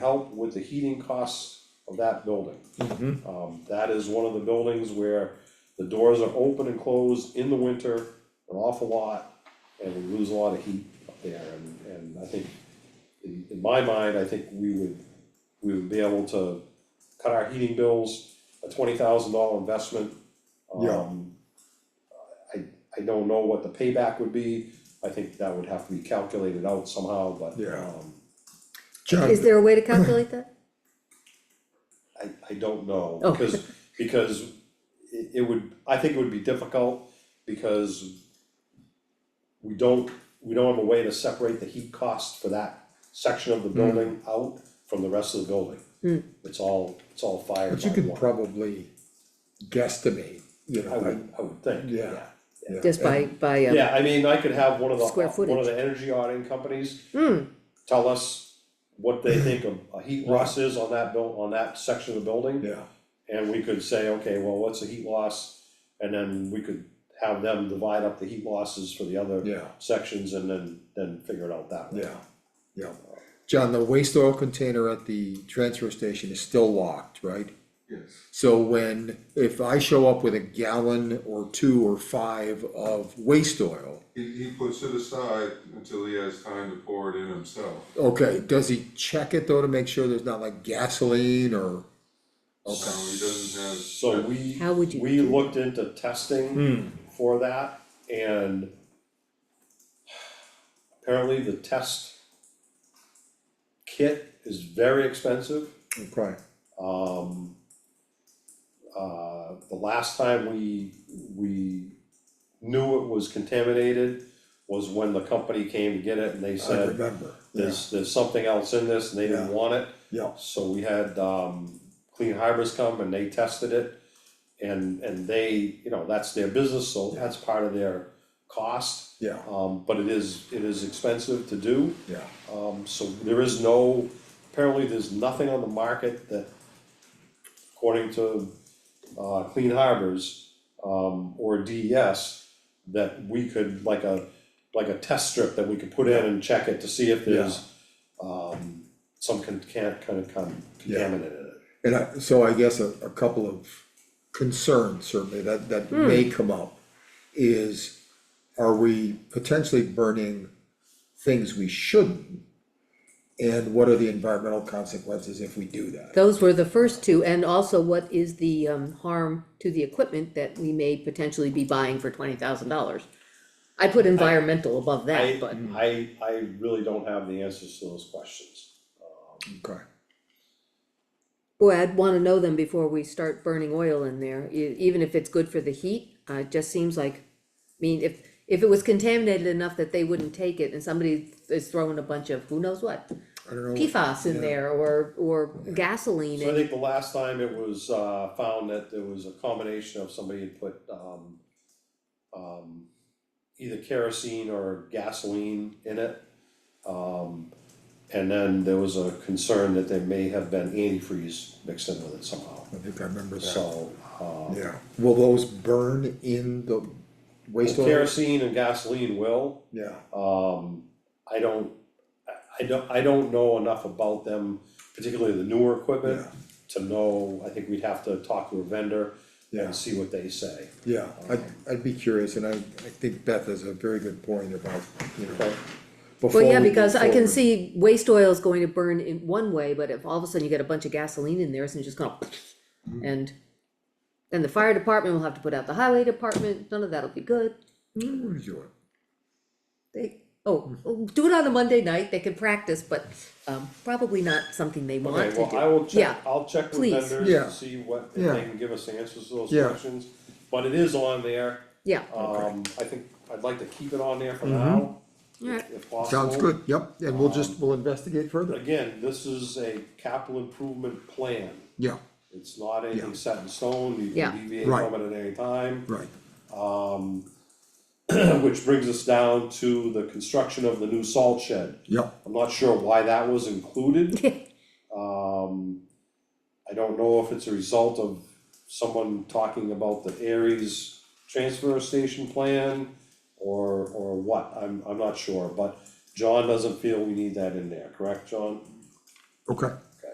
help with the heating costs of that building. Mhm. Um, that is one of the buildings where the doors are open and closed in the winter, an awful lot, and we lose a lot of heat up there, and, and I think, in, in my mind, I think we would, we would be able to cut our heating bills, a twenty thousand dollar investment. Yeah. Um, I, I don't know what the payback would be, I think that would have to be calculated out somehow, but, Yeah. um, John, Is there a way to calculate that? I I don't know, Oh. because because it it would, I think it would be difficult because we don't, we don't have a way to separate the heat cost for that section Hmm. of the building out from the rest of the building. It's all, it's all fire but you by could one, probably guesstimate, you I know, like, would, I would think, Yeah. yeah. yeah. Just by, by, um, Yeah, I mean, I could have one of the, Square one of footage. the energy auditing companies hmm, tell us what they think a a heat loss is on that buil- on that section of the building. Yeah, And we could say, okay, well, what's the heat loss? And then we could have them divide up the heat losses for the other yeah, sections and then, then figure it out that way. yeah, yeah. John, the waste oil container at the transfer station is still locked, right? Yes. So when, if I show up with a gallon or two or five of waste oil, He, he puts it aside until he has time to pour it in himself. okay, does he check it though to make sure there's not like gasoline or? So Okay, he doesn't have. So we, How would you we do looked into Hmm. testing for that and apparently the test kit is very expensive. okay, Um, uh, the last time we, we knew it was contaminated was when the company came to get it and they I said, remember, yeah, there's, there's something else in this and they didn't Yeah. want it. yeah, So we had, um, Clean Harbors come and they tested it. And, and they, you know, that's their business, so that's part of their cost. yeah, Um, but it is, it is expensive to do. yeah, Um, so there is no, apparently there's nothing on the market that, according to, uh, Clean Harbors, um, or DES, that we could, like a, like a test strip that we could put in and check it to see if there's, um, some can, can't, kind of con- Yeah. contaminant in it. And I, so I guess a, a couple of concerns certainly that, that Hmm. may come up is, are we potentially burning things we shouldn't? And what are the environmental consequences if we do that? Those were the first two, and also what is the, um, harm to the equipment that we may potentially be buying for twenty thousand dollars? I put environmental above I, that, but, I, I really don't have the answers to those questions. Okay, boy, I'd wanna know them before we start burning oil in there, e- even if it's good for the heat, uh, it just seems like, I mean, if, if it was contaminated enough that they wouldn't take it, and somebody is throwing a bunch of who knows what, I don't know. PFAS in there, or, or gasoline, So I and, think the last time it was, uh, found that there was a combination of somebody had put, um, um, either kerosene or gasoline in it. Um, and then there was a concern that there may have been antifreeze mixed in with it somehow, I think I remember that, so, uh, yeah. Will those burn in the waste oil? kerosene and gasoline will, Yeah, um, I don't, I, I don't, I don't know enough about them, particularly the newer equipment, Yeah. to know, I think we'd have to talk to a vendor Yeah. and see what they say. yeah, I'd, I'd be curious, and I, I think Beth has a very good point about, you know. Okay. before well, yeah, we move because I can forward. see waste oil is going to burn in one way, but if all of a sudden you get a bunch of gasoline in there, it's just gonna Mm-hmm. and then the fire department will have to put out the highway department, none of that'll be good, What is yours? they, Hmm. oh, oh, do it on a Monday night, they can practice, but, um, probably not something they want Okay, to do. well, I will check, Yeah, I'll check with please. vendors Yeah. and see what, if Yeah. they can give us answers to those Yeah. questions, but it is on there. yeah, Um, I think I'd like to keep it on there for now, alright, if possible. Mm-hmm. Sounds good, yep, and we'll just, we'll investigate further, Again, this is a capital improvement plan, yeah, it's not anything Yeah. set in stone, you Yeah. can deviate Right. from it at any time. Um, right, Which brings us down to the construction of the new salt shed. yep, I'm not sure why that was included. Um, I don't know if it's a result of someone talking about the Aries transfer station plan or, or what, I'm, I'm not sure, but John doesn't feel we need that in there, correct, John? okay,